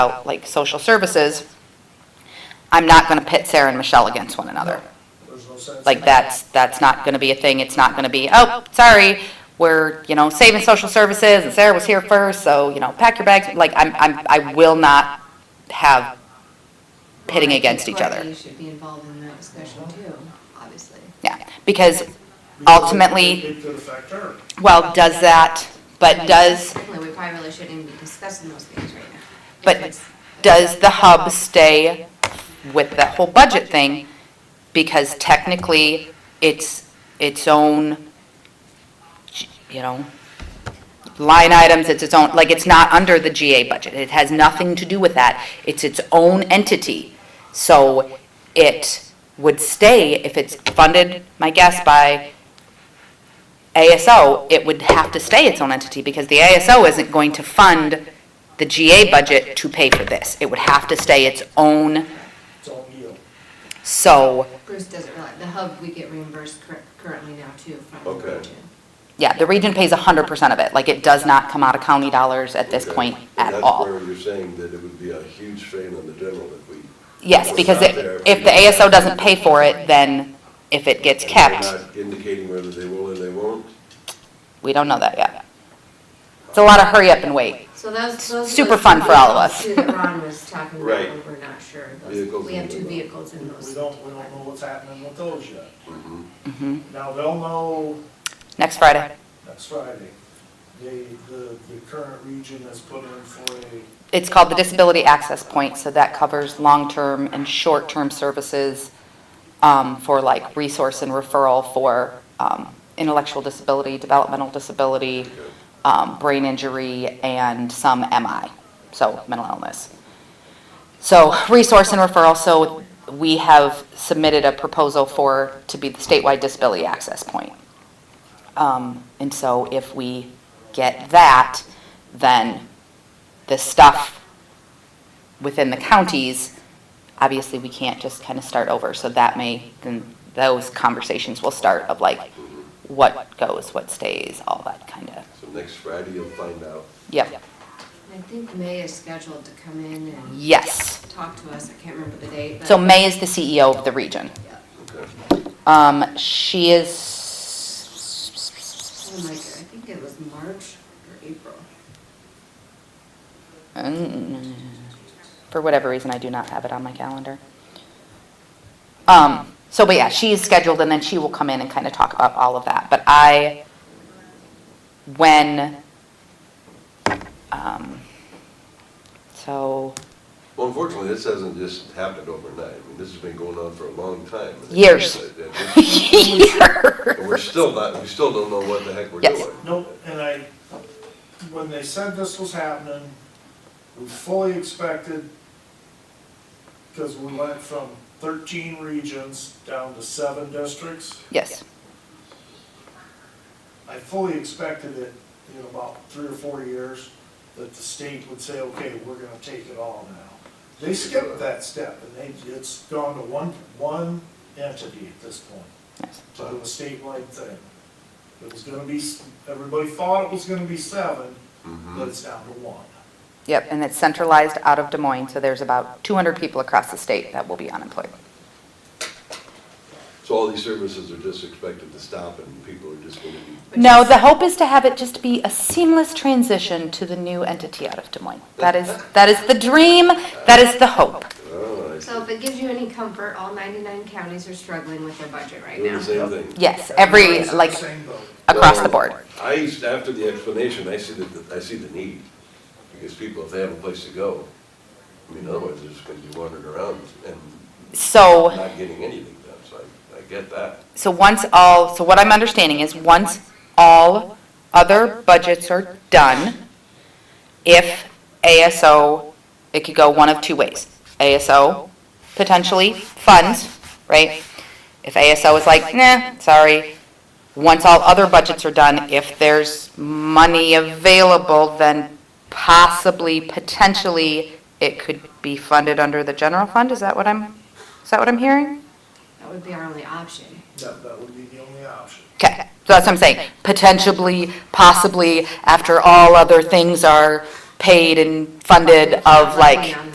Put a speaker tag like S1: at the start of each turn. S1: about like social services, I'm not going to pit Sarah and Michelle against one another.
S2: There's no sense.
S1: Like, that's, that's not going to be a thing, it's not going to be, oh, sorry, we're, you know, saving social services, and Sarah was here first, so, you know, pack your bags, like, I'm, I'm, I will not have pitting against each other.
S3: You should be involved in that discussion too, obviously.
S1: Yeah, because ultimately,
S2: It could affect her.
S1: well, does that, but does,
S3: Certainly, we probably really shouldn't even be discussing those things right now.
S1: but does the hub stay with the whole budget thing? Because technically, it's its own, you know, line items, it's its own, like, it's not under the GA budget. It has nothing to do with that. It's its own entity. So it would stay, if it's funded, my guess, by ASO, it would have to stay its own entity because the ASO isn't going to fund the GA budget to pay for this. It would have to stay its own,
S2: It's all you.
S1: so,
S3: Bruce doesn't realize, the hub, we get reimbursed cur- currently now too from the
S4: Okay.
S3: region.
S1: yeah, the region pays hundred percent of it. Like, it does not come out of county dollars at this
S4: Okay.
S1: point
S4: And
S1: at all.
S4: That's where you're saying that it would be a huge strain on the general if we.
S1: Yes,
S4: It's
S1: because
S4: not
S1: it-
S4: there.
S1: if the ASO doesn't pay for it, then if it gets
S4: They're
S1: kept,
S4: not indicating whether they will or they won't.
S1: we don't know that yet. It's a lot of hurry up and wait.
S3: So those, those.
S1: Super
S3: those
S1: fun for all of us.
S3: Two that Ron was talking about,
S4: Right.
S3: when we're not sure. Those-
S4: Vehicles
S3: We have
S4: and
S3: two
S4: whatnot.
S3: vehicles in
S2: We
S3: those.
S2: don't, we don't know what's happening with those yet.
S4: Mhm.
S1: Mm-hmm.
S2: Now, they'll know
S1: Next Friday.
S2: next Friday. They, the, the current region has put in for a,
S1: It's called the Disability Access Point, so that covers long-term and short-term services um, for like resource and referral for um, intellectual disability, developmental disability, um, brain injury, and some MI, so mental illness. So resource and referral, so we have submitted a proposal for, to be the statewide disability access point. Um, And so if we get that, then the stuff within the counties, obviously, we can't just kind of start over. So that may, then those conversations will start of like, what goes, what stays, all that kind of,
S4: So next Friday you'll find out.
S1: yep,
S3: I think May is scheduled to come in and
S1: yes.
S3: talk to us. I can't remember the date, but.
S1: So May is the CEO of the region.
S3: Yeah.
S4: Okay.
S1: Um, She is,
S3: Oh my God, I think it was March or April.
S1: Mm, for whatever reason, I do not have it on my calendar. Um, so, but yeah, she is scheduled and then she will come in and kind of talk about all of that. But I, when, um, so
S4: Well, unfortunately, this hasn't just happened overnight. I mean, this has been going on for a long time. And it's-
S1: Years.
S4: and we're-
S1: here,
S4: And we're still not, we still don't know what the heck we're
S1: Yes.
S4: doing.
S2: no, and I, when they said this was happening, we fully expected, because we went from thirteen regions down to seven districts.
S1: yes,
S2: I fully expected it in about three or four years, that the state would say, okay, we're gonna take it all now. They skipped that step, and they, it's gone to one, one entity at this point,
S1: yes.
S2: to do a statewide thing. It was gonna be, s- everybody thought it was gonna be seven, but it's down to one.
S1: Yep, and it's centralized out of Des Moines, so there's about 200 people across the state that will be unemployed.
S4: So all these services are just expected to stop and people are just going to be,
S1: No, the hope is to have it just be a seamless transition to the new entity out of Des Moines. That is, that is the dream, that is the hope.
S4: oh, I see.
S3: So if it gives you any comfort, all 99 counties are struggling with their budget right
S4: Doing
S3: now.
S4: the same thing.
S1: Yes, every,
S2: Everybody's in the
S1: like,
S2: Same boat.
S1: across the
S4: Well,
S1: board.
S4: I used, after the explanation, I see the, I see the need, because people, if they have a place to go, I mean, otherwise they're just gonna be wandering around and
S1: So,
S4: not getting anything done, so I, I get that.
S1: so once all, so what I'm understanding is, once all other budgets are done, if ASO, it could go one of two ways. ASO potentially funds, right? If ASO is like, nah, sorry, once all other budgets are done, if there's money available, then possibly, potentially, it could be funded under the general fund? Is that what I'm, is that what I'm hearing?
S3: That would be our only option.
S2: That, that would be the only option.
S1: Okay, so that's what I'm saying. Potentially, possibly, after all other things are
S3: paid and funded of
S1: Roughly
S3: like
S1: on